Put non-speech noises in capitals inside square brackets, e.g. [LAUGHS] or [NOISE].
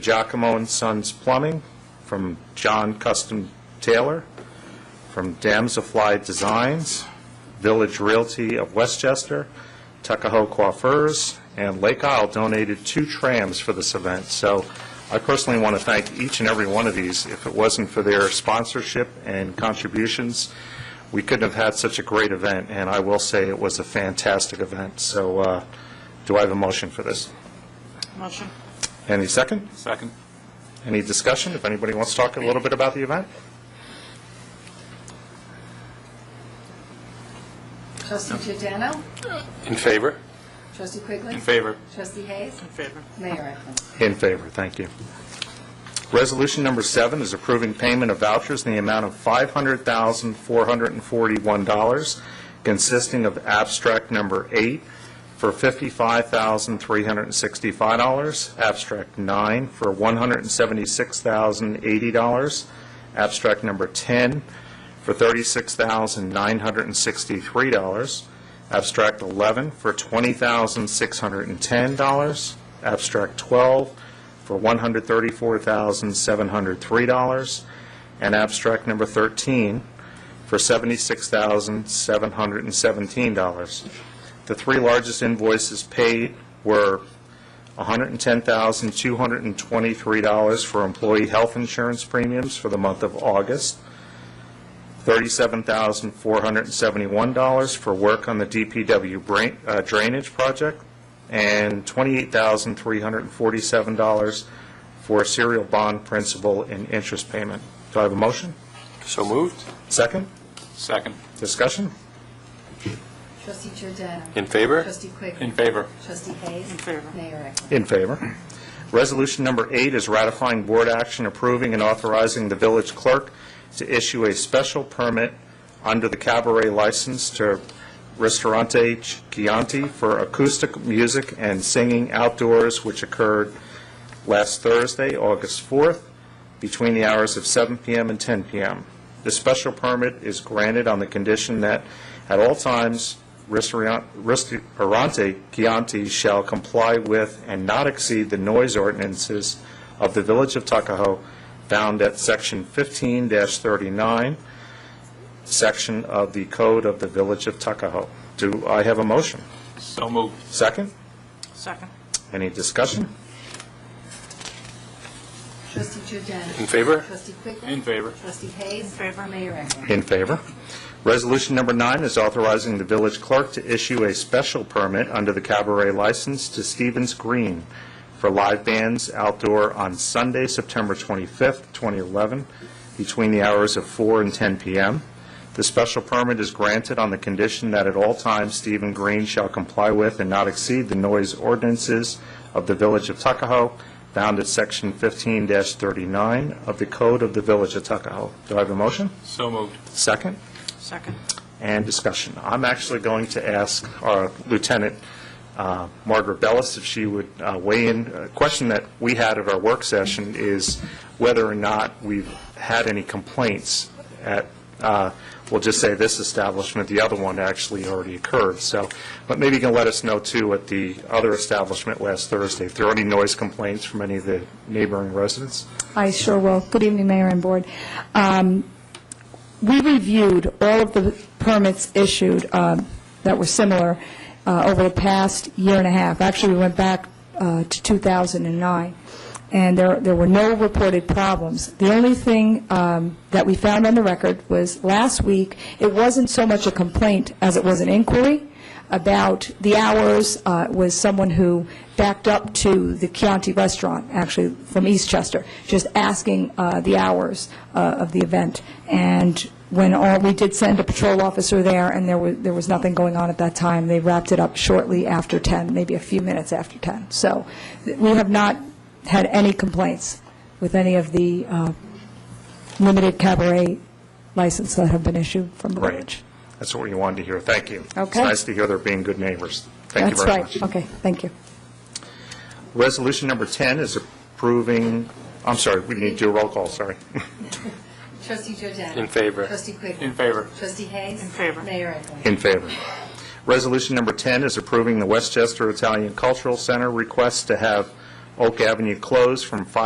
Giacomo and Sons Plumbing, from John Custom Taylor, from Damsafly Designs, Village Realty of Westchester, Tuckahoe Coiffures, and Lake Isle donated two trams for this event. So I personally want to thank each and every one of these. If it wasn't for their sponsorship and contributions, we couldn't have had such a great event, and I will say it was a fantastic event. So uh, do I have a motion for this? Motion. Any second? Second. Any discussion, if anybody wants to talk a little bit about the event? Trustee Giordano. In favor? Trustee Quigley. favor. Trustee Hayes. In favor. Mayor Eklund. In favor, thank you. Resolution number seven is approving payment of vouchers in the amount of $500,441, consisting of abstract number eight for $55,365, abstract nine for $176,080, abstract number 10 for $36,963, abstract 11 for $20,610, abstract 12 for $134,703, and abstract number 13 for $76,717. The three largest invoices paid were $110,223 for employee health insurance premiums for the month of August, $37,471 for work on the DPW brain- uh, drainage project, and $28,347 for serial bond principal and interest payment. Do I have a motion? So moved. Second? Second. Discussion? Trustee Giordano. In favor? Trustee Quigley. In favor. Trustee Hayes. In favor. Mayor Eklund. In favor. Resolution number eight is ratifying board action approving and authorizing the village clerk to issue a special permit under the cabaret license to Ristorante Chianti for acoustic music and singing outdoors, which occurred last Thursday, August 4th, between the hours of 7 PM and 10 PM. The special permit is granted on the condition that at all times, Ristorian- Ristorante Chianti shall comply with and not exceed the noise ordinances of the Village of Tuckahoe found at Section 15-39, section of the Code of the Village of Tuckahoe. Do I have a motion? So moved. Second? Second. Any discussion? Trustee Giordano. In favor? Trustee Quigley. In favor. Trustee Hayes. In favor. Mayor Eklund. In favor. Resolution number nine is authorizing the village clerk to issue a special permit under the cabaret license to Stevens Green for live bands outdoor on Sunday, September 25th, 2011, between the hours of 4 and 10 p.m. The special permit is granted on the condition that at all times Stephen Green shall comply with and not exceed the noise ordinances of the Village of Tuckahoe, found at Section 15-39 of the Code of the Village of Tuckahoe. Do I have a motion? So moved. Second, Second. and discussion. I'm actually going to ask our Lieutenant uh, Margaret Bellis if she would uh, weigh in. A question that we had at our work session is whether or not we've had any complaints at, uh, we'll just say this establishment, the other one actually already occurred, so, but maybe you can let us know too at the other establishment last Thursday, if there are any noise complaints from any of the neighboring residents? I sure will. Good evening, Mayor and Board. Um, We reviewed all of the permits issued um, that were similar uh, over the past year and a half. Actually, we went back uh, to 2009, and there there were no reported problems. The only thing um, that we found on the record was last week, it wasn't so much a complaint as it was an inquiry about the hours uh, was someone who backed up to the Chianti Restaurant, actually from Eastchester, just asking uh, the hours uh, of the event. And when all, we did send a patrol officer there, and there was, there was nothing going on at that time. They wrapped it up shortly after 10, maybe a few minutes after 10. So th- we have not had any complaints with any of the uh, limited cabaret licenses that have been issued from the Right. village. That's what we wanted to hear. Thank you. It's Okay. nice to hear they're being good neighbors. Thank you very much. That's right. Okay, thank you. Resolution number 10 is approving, I'm sorry, we need to do a roll call, sorry. [LAUGHS] Trustee Giordano. In favor. Trustee Quigley. In favor. Trustee Hayes. In favor. Mayor Eklund. In favor. Resolution number 10 is approving the Westchester Italian Cultural Center request to have Oak Avenue closed from 5